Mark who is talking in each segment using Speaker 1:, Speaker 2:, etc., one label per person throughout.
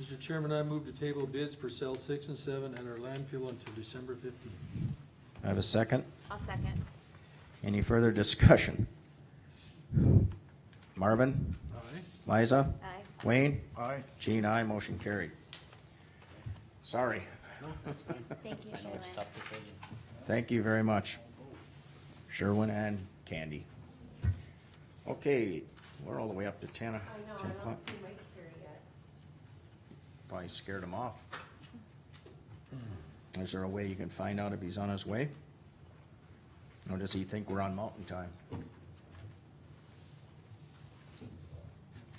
Speaker 1: Mr. Chairman, I move to table bids for cell six and seven at our landfill until December fifteenth.
Speaker 2: I have a second.
Speaker 3: I'll second.
Speaker 2: Any further discussion? Marvin?
Speaker 1: Aye.
Speaker 2: Liza?
Speaker 3: Aye.
Speaker 2: Wayne?
Speaker 4: Aye.
Speaker 2: Gene, I Motion carried. Sorry.
Speaker 1: No, that's fine.
Speaker 3: Thank you,
Speaker 5: I know it's a
Speaker 3: Shayla.
Speaker 5: tough decision.
Speaker 2: Thank you very much. Sherwin and Candy. Okay, we're all the way up to ten, o-
Speaker 6: I know,
Speaker 2: ten
Speaker 6: I
Speaker 2: o'clock.
Speaker 6: don't see Mike here yet.
Speaker 2: Probably scared him off.
Speaker 1: Hmm.
Speaker 2: Is there a way you can find out if he's on his way? Or does he think we're on mountain time?
Speaker 1: Oh,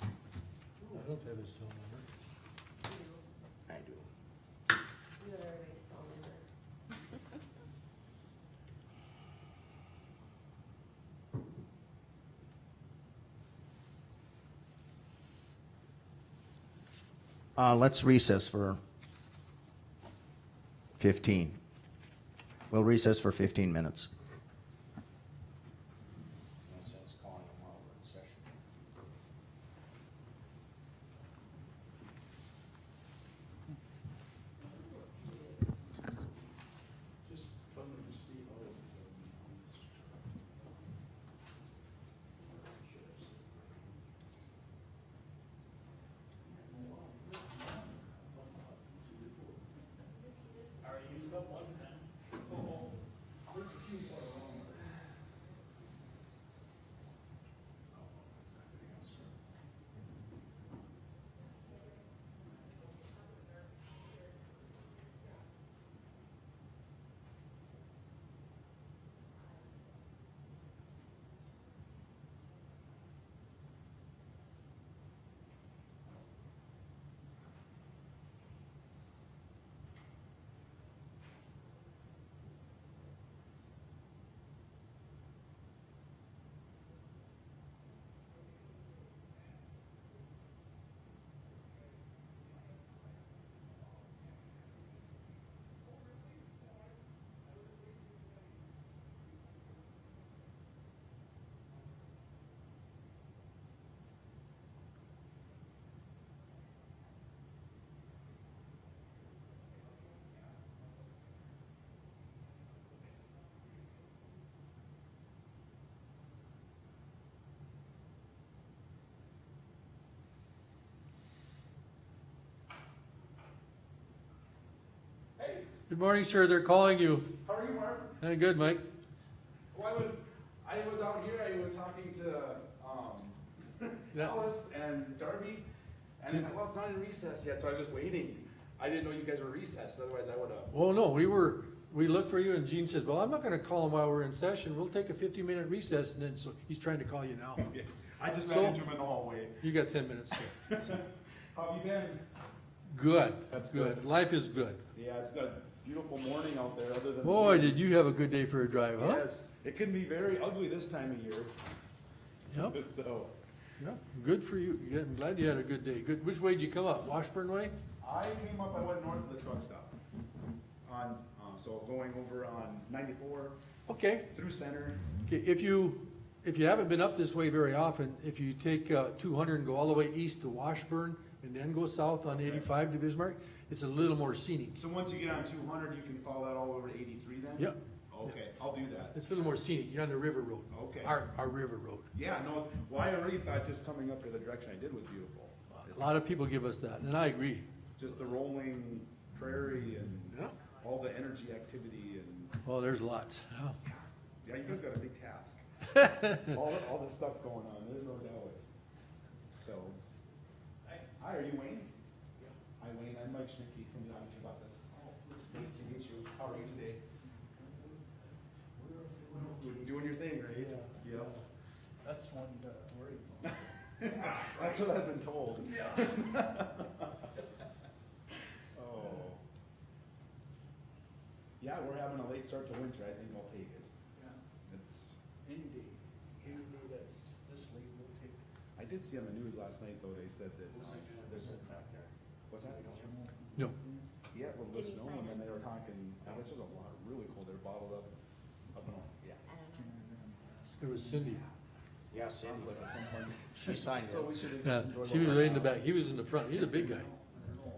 Speaker 1: I don't have his cell number.
Speaker 6: You,
Speaker 2: I do.
Speaker 6: you and everybody saw him there.
Speaker 2: Uh, let's recess for fifteen. We'll recess for fifteen minutes.
Speaker 1: Good morning, sir. They're calling you.
Speaker 7: How are you, Marv?
Speaker 1: Uh, Good, Mike.
Speaker 7: Well, I was, I was out here, I was talking to, um,
Speaker 1: Yeah.
Speaker 7: Alice and Darby, and then, well, it's not in recess yet, so I was just waiting. I didn't know you guys were recessed, otherwise I would've.
Speaker 1: Oh, no, we were, we looked for you and Gene says, well, I'm not gonna call him while we're in session. We'll take a fifteen minute recess and then, so he's trying to call you now.
Speaker 7: I just
Speaker 1: So-
Speaker 7: ran into him in the hallway.
Speaker 1: You got ten minutes. sir.
Speaker 7: How have you been?
Speaker 1: Good.
Speaker 7: That's good.
Speaker 1: Life is good.
Speaker 7: Yeah, it's a beautiful morning out there, other than.
Speaker 1: Boy, did you have a good day for a drive, huh?
Speaker 7: Yes, it can be very ugly this time of year,
Speaker 1: Yep,
Speaker 7: so.
Speaker 1: yep. Good for you. Yeah, I'm glad you had a good day. Good. Which way did you come up? Washburn way?
Speaker 7: I came up, I went north of the truck stop. On, um, so going over on ninety-four
Speaker 1: Okay.
Speaker 7: through center,
Speaker 1: Okay, if you, if you haven't been up this way very often, if you take uh, 200 and go all the way east to Washburn and then go south on 85 to Bismarck, it's a little more scenic.
Speaker 7: So once you get on two hundred, you can follow that all over to eighty-three then?
Speaker 1: Yep,
Speaker 7: Okay, I'll do that.
Speaker 1: it's a little more scenic, you're on the river road.
Speaker 7: Okay.
Speaker 1: Our, our river road.
Speaker 7: Yeah, no, well, I already thought just coming up here, the direction I did was beautiful.
Speaker 1: A lot of people give us that, and I agree.
Speaker 7: Just the rolling prairie and
Speaker 1: Yeah.
Speaker 7: all the energy activity and,
Speaker 1: Oh, there's lots. Yeah.
Speaker 7: yeah, you guys got a big task. All, the- all this stuff going on, there's no doubt. So. Hi, are you Wayne? Hi, Wayne, I'm Mike Schnicki from the auditor's office. Nice to meet you. How are you today? Doing your thing, right? Yep.
Speaker 4: That's one to worry about.
Speaker 7: That's what I've been told. Yeah. Oh. Yeah, we're having a late start to winter, I think I'll take it. It's,
Speaker 4: Indeed. Even though that's this late, we'll take it.
Speaker 7: I did see on the news last night though, they said that. um, there's a-
Speaker 4: back there?
Speaker 7: What's that?
Speaker 1: No,
Speaker 7: Yeah, a little
Speaker 3: Did
Speaker 7: bit of
Speaker 3: he
Speaker 7: snow
Speaker 3: sign
Speaker 7: and then
Speaker 3: up?
Speaker 7: they were talking, I guess there's a lot, really cold, they're bottled up, up and all, yeah.
Speaker 3: I don't know.
Speaker 1: it was Cindy.
Speaker 2: Yeah,
Speaker 7: Sounds like at some point.
Speaker 2: She signed
Speaker 7: So we should
Speaker 1: Yeah,
Speaker 7: enjoy.
Speaker 1: she
Speaker 7: the
Speaker 1: was right in the
Speaker 7: workshop.
Speaker 1: back, he was in the front, he's a big guy.